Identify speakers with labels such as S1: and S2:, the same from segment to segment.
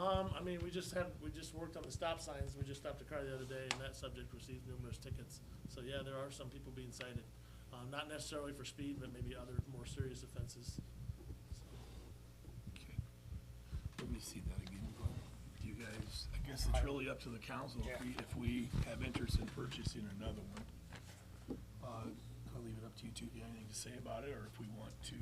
S1: Um, mean, we just had, we just worked on the stop signs, we just stopped a car the other day, and that subject received numerous tickets. So, yeah, there are some people being cited, uh, not necessarily for speed, but maybe other more serious offenses.
S2: Okay. Let me see that again, Glenn. Do you guys, I guess it's really up to the council if we, if we have interest in purchasing another one. Uh, I'll leave it up to you two, if you have anything to say about it, or if we want to,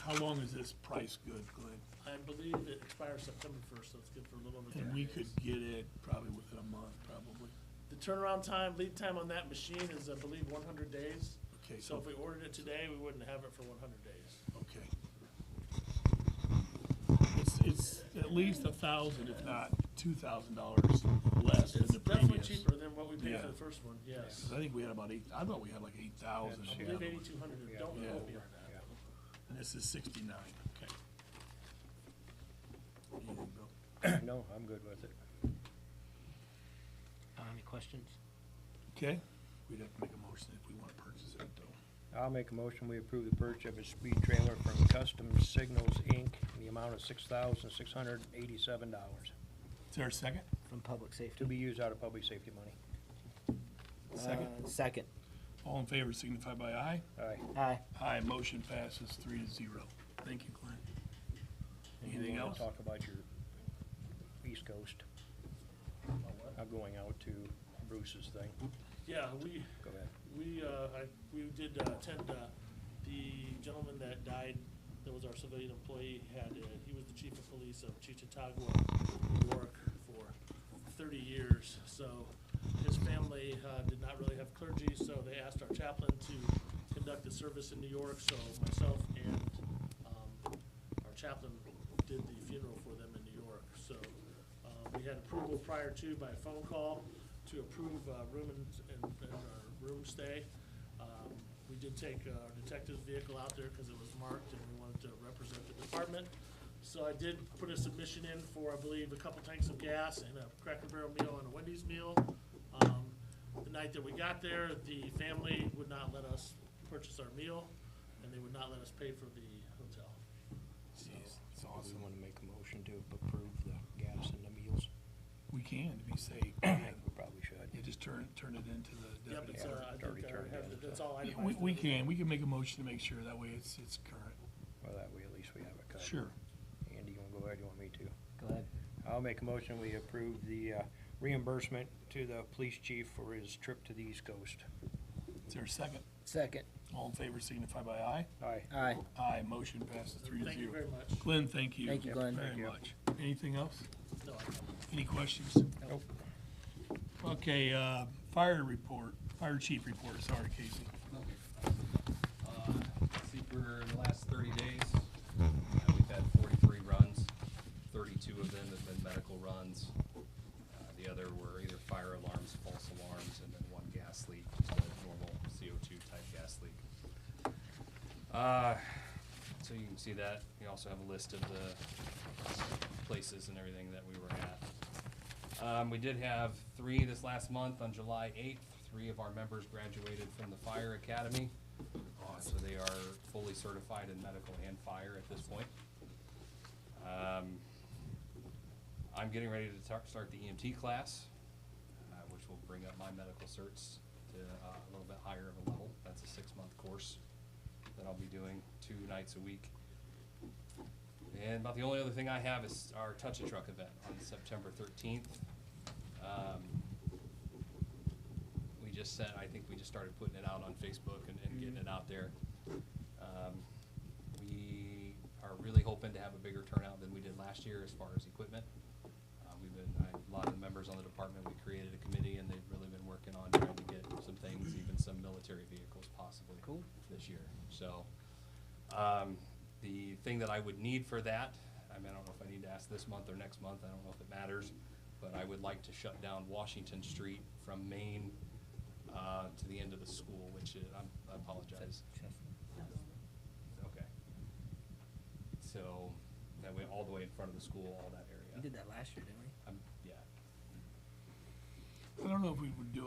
S2: how long is this price good, Glenn?
S1: I believe it expires September first, so it's good for a little over thirty
S2: And we
S1: days.
S2: could get it probably within a month, probably.
S1: The turnaround time, lead time on that machine is, I believe, one hundred days.
S2: Okay,
S1: So
S2: so,
S1: if we ordered it today, we wouldn't have it for one hundred days.
S2: okay. It's, it's at least a thousand, if not two thousand dollars less than
S1: It's
S2: the previous.
S1: definitely cheaper than what we paid for
S2: Yeah.
S1: the first one, yes.
S2: 'Cause I think we had about eight, I thought we had like eight thousand.
S1: I believe eighty-two hundred, don't
S2: Yeah.
S1: quote me on that.
S2: And this is sixty-nine, okay. Anything, Bill?
S3: No, I'm good with it.
S4: Uh, Any questions?
S2: Okay, we'd have to make a motion if we want to purchase it, though.
S3: I'll make a motion, we approve the purchase of a speed trailer from Custom Signals, Inc., in the amount of six thousand, six hundred and eighty-seven dollars,
S2: Is there a second?
S4: From public
S3: to
S4: safety?
S3: be used out of public safety money.
S2: Second.
S4: Uh, Second.
S2: All in favor signify by aye.
S3: Aye.
S4: Aye.
S2: Aye, motion passes three to zero. Thank you, Glenn. Anything
S3: You wanna
S2: else?
S3: Talk about your East Coast. I'm going out to Bruce's thing.
S1: Yeah, we,
S3: Go ahead.
S1: we, uh, I, we did uh, attend, uh, the gentleman that died, that was our civilian employee, had, uh, he was the chief of police of Chichatagua, New York, for thirty years. So his family, uh, did not really have clergy, so they asked our chaplain to conduct the service in New York. So myself and, um, our chaplain did the funeral for them in New York. So, uh, we had approval prior to by phone call to approve, uh, room and, and, and our room stay. Um, We did take uh, our detective's vehicle out there because it was marked and we wanted to represent the department. So I did put a submission in for, I believe, a couple tanks of gas and a Cracker Barrel meal and a Wendy's meal. Um, The night that we got there, the family would not let us purchase our meal and they would not let us pay for the hotel.
S2: Jeez, It's
S3: We
S2: awesome.
S3: wanna make a motion to approve the gas and the meals.
S2: We can, if you say,
S3: I
S2: yeah,
S3: think we probably
S2: you
S3: should.
S2: just turn, turn it into the
S1: Yep,
S2: deputy.
S1: it's, uh, I
S3: Dirty
S1: think I
S3: turn,
S1: have,
S3: yeah.
S1: the- that's all
S2: Yeah,
S1: itemized.
S2: We, we can, we can make a motion to make sure, that way it's, it's current.
S3: Well, that way at least we have it covered.
S2: Sure.
S3: Andy, you wanna go ahead, you want me to?
S4: Go ahead.
S3: I'll make a motion, we approve the uh, reimbursement to the police chief for his trip to the East Coast.
S2: Is there a second?
S4: Second.
S2: All in favor signify by aye.
S3: Aye.
S4: Aye.
S2: Aye, motion passes three to
S1: Thank you
S2: zero.
S1: very much.
S2: Glenn, thank you.
S4: Thank you, Glenn.
S2: Very
S3: Thank you.
S2: much. Anything else?
S1: No, I don't.
S2: Any questions?
S3: Nope.
S2: Okay, uh, fire report, fire chief report, sorry, Casey.
S5: Uh, See, for the last thirty days, uh, we've had forty-three runs, thirty-two of them have been medical runs. Uh, The other were either fire alarms, false alarms, and then one gas leak, just a normal CO2 type gas leak. Uh, So you can see that, we also have a list of the places and everything that we were at. Um, We did have three this last month, on July eighth, three of our members graduated from the fire academy. Uh, So they are fully certified in medical and fire at this point. Um, I'm getting ready to tar- start the EMT class, uh, which will bring up my medical certs to uh, a little bit higher of a level. That's a six-month course that I'll be doing two nights a week. And about the only other thing I have is our Touch a Truck event on September thirteenth. Um, We just said, I think we just started putting it out on Facebook and, and getting it out there. Um, We are really hoping to have a bigger turnout than we did last year as far as equipment. Uh, We've been, I- a lot of the members on the department, we created a committee and they've really been working on trying to get some things, even some military vehicles possibly.
S4: Cool.
S5: This year, so. Um, the thing that I would need for that, I mean, I don't know if I need to ask this month or next month, I don't know if it matters, but I would like to shut down Washington Street from Main, uh, to the end of the school, which is, I'm- I apologize. Okay. So, that way, all the way in front of the school, all that
S4: We
S5: area.
S4: did that last year, didn't we?
S5: I'm, yeah.
S2: I don't know if we would do